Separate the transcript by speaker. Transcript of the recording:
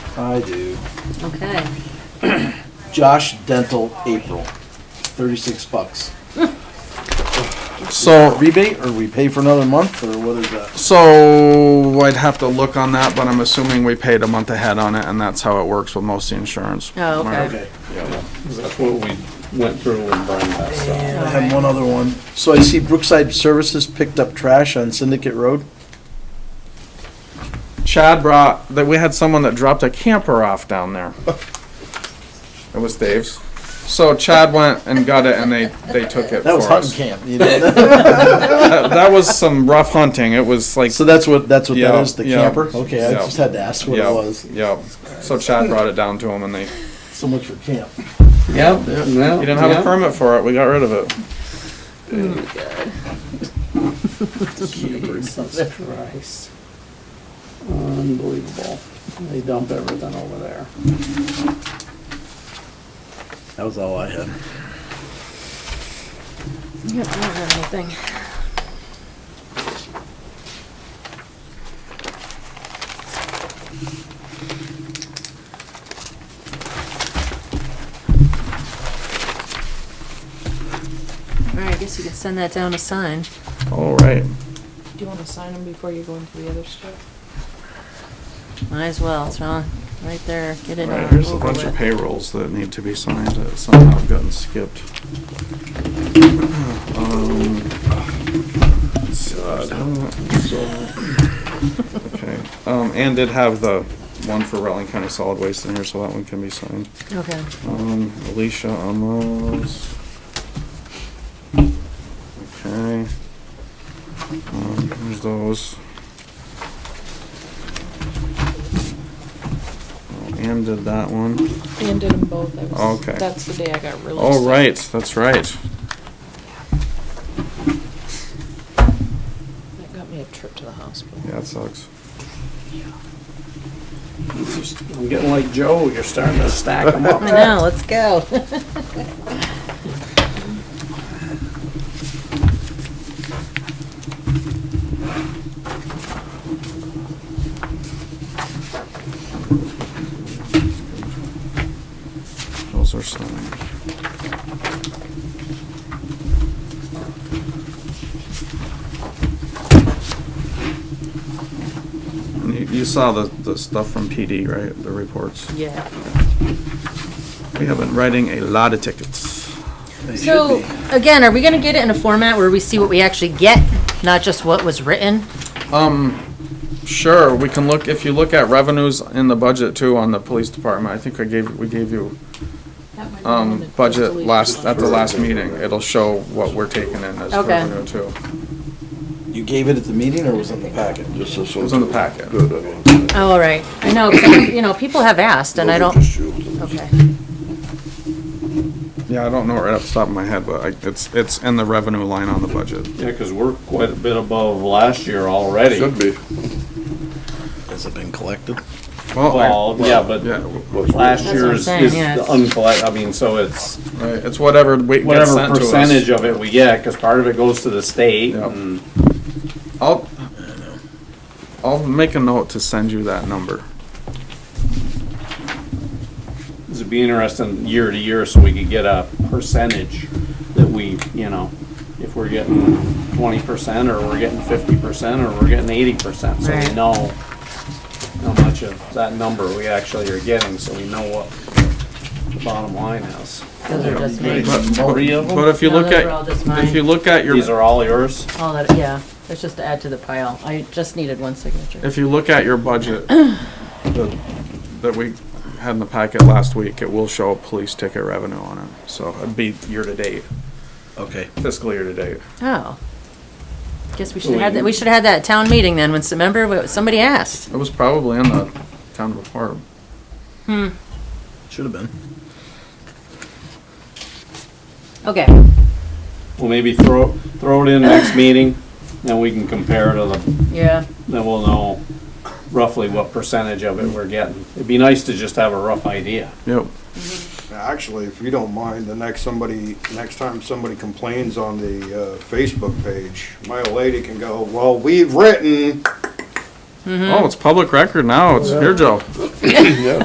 Speaker 1: I do.
Speaker 2: Okay.
Speaker 1: Josh Dental, April, thirty-six bucks.
Speaker 3: So
Speaker 1: Rebate, or we pay for another month, or what is that?
Speaker 3: So I'd have to look on that, but I'm assuming we paid a month ahead on it, and that's how it works with most of the insurance.
Speaker 2: Oh, okay.
Speaker 3: Where-
Speaker 1: Okay,
Speaker 4: That's what we went through when Brian passed
Speaker 1: I
Speaker 4: out.
Speaker 1: have one other one. So I see Brookside Services picked up trash on Syndicate Road.
Speaker 3: Chad brought that we had someone that dropped a camper off down there. It was Dave's. So Chad went and got it, and they they took it
Speaker 1: That
Speaker 3: for
Speaker 1: was hunting
Speaker 3: us.
Speaker 1: camp, you know?
Speaker 3: That, that was some rough hunting. It was like
Speaker 1: So that's what, that's what that
Speaker 3: Yeah,
Speaker 1: is, the
Speaker 3: yeah,
Speaker 1: camper? Okay, I
Speaker 3: yeah.
Speaker 1: just had to ask what it
Speaker 3: yeah,
Speaker 1: was.
Speaker 3: yeah. So Chad brought it down to him, and they he
Speaker 1: So much for camp.
Speaker 4: Yep. Yeah, no.
Speaker 3: didn't have a permit for it. We got rid of it.
Speaker 4: Jesus Christ. Unbelievable. They dump everything over there.
Speaker 1: That was all I had.
Speaker 2: Yep, I don't have anything. All right, I guess you could send that down to sign.
Speaker 3: All right.
Speaker 5: Do you want to sign them before you go into the other stuff?
Speaker 2: Might as well, it's wrong, right there, get it
Speaker 3: All right.
Speaker 2: over
Speaker 3: Here's a bunch of
Speaker 2: with.
Speaker 3: payrolls that need to be signed that somehow have gotten skipped. Um, Okay, um, and did have the one for Rutland County Solid Waste in here, so that one can be signed.
Speaker 2: Okay,
Speaker 3: Um, Alicia on those. Okay. Um, here's those. Oh, Ann did that one.
Speaker 5: And did them both. I was-
Speaker 3: Okay.
Speaker 5: That's the day I got really
Speaker 3: Oh,
Speaker 5: sick.
Speaker 3: right, that's right.
Speaker 5: That got me a trip to the hospital.
Speaker 3: Yeah, it sucks.
Speaker 4: It's just- I'm getting like Joe, you're starting to stack them
Speaker 2: I
Speaker 4: up.
Speaker 2: know, let's go.
Speaker 3: Those are signed. And You, you saw the, the stuff from PD, right? The reports.
Speaker 2: Yeah.
Speaker 3: We have been writing a lot of tickets.
Speaker 1: They should
Speaker 2: So,
Speaker 1: be.
Speaker 2: again, are we gonna get it in a format where we see what we actually get, not just what was written?
Speaker 3: Um, Sure, we can look, if you look at revenues in the budget too on the police department, I think I gave, we gave you, um, budget last, uh, at the last meeting. It'll show what we're taking in as
Speaker 2: Okay.
Speaker 3: revenue too.
Speaker 1: You gave it at the meeting, or was it in the packet?
Speaker 6: Just this
Speaker 3: It
Speaker 6: one's
Speaker 3: was in the packet.
Speaker 6: Good, I mean.
Speaker 2: Oh, all right. I know, 'cause I- you know, people have asked and I
Speaker 6: those are
Speaker 2: don't,
Speaker 6: just you.
Speaker 2: okay.
Speaker 3: Yeah, I don't know right off the top of my head, but I, it's, it's in the revenue line on the budget.
Speaker 4: Yeah, cause we're quite a bit above last year already.
Speaker 6: Should be.
Speaker 1: Has it been collected?
Speaker 3: Well, I-
Speaker 4: Well, yeah, but
Speaker 3: yeah,
Speaker 6: What's-
Speaker 4: last
Speaker 2: That's what I'm
Speaker 4: year's
Speaker 2: saying,
Speaker 4: is
Speaker 2: yeah,
Speaker 4: the
Speaker 2: it's-
Speaker 4: uncollect, I mean, so it's
Speaker 3: right, it's whatever we, gets
Speaker 4: whatever
Speaker 3: sent to us.
Speaker 4: percentage of it we get, cause part of it goes to the state
Speaker 3: Yep.
Speaker 4: and
Speaker 3: I'll, I'll make a note to send you that number.
Speaker 4: It'd be interesting year to year so we could get a percentage that we, you know, if we're getting twenty percent or we're getting fifty percent or we're getting eighty percent, so we
Speaker 2: Right.
Speaker 4: know how much of that number we actually are getting, so we know what the bottom line is.
Speaker 2: Those are just me.
Speaker 3: But-
Speaker 4: Three of
Speaker 3: But
Speaker 4: them?
Speaker 3: if you
Speaker 2: No,
Speaker 3: look
Speaker 2: those are all
Speaker 3: at,
Speaker 2: just
Speaker 3: if
Speaker 2: mine.
Speaker 3: you look at your,
Speaker 4: These are all yours?
Speaker 2: All that, yeah, that's just to add to the pile. I just needed one signature.
Speaker 3: if you look at your budget the- that we had in the packet last week, it will show police ticket revenue on it. So it'd be year-to-date,
Speaker 1: Okay.
Speaker 3: fiscal year-to-date.
Speaker 2: Oh. Guess we should have had that, we should have had that at town meeting then, when, remember, what- somebody asked.
Speaker 3: It was probably in the town report.
Speaker 1: Should have been.
Speaker 2: Okay,
Speaker 4: Well, maybe throw, throw it in next meeting, then we can compare to the,
Speaker 2: yeah,
Speaker 4: then we'll know roughly what percentage of it we're getting. It'd be nice to just have a rough idea.
Speaker 3: Yep.
Speaker 7: Actually, if you don't mind, the next somebody, next time somebody complains on the uh, Facebook page, my old lady can go, well, we've written
Speaker 3: Oh, it's public record now. It's, here, Joe.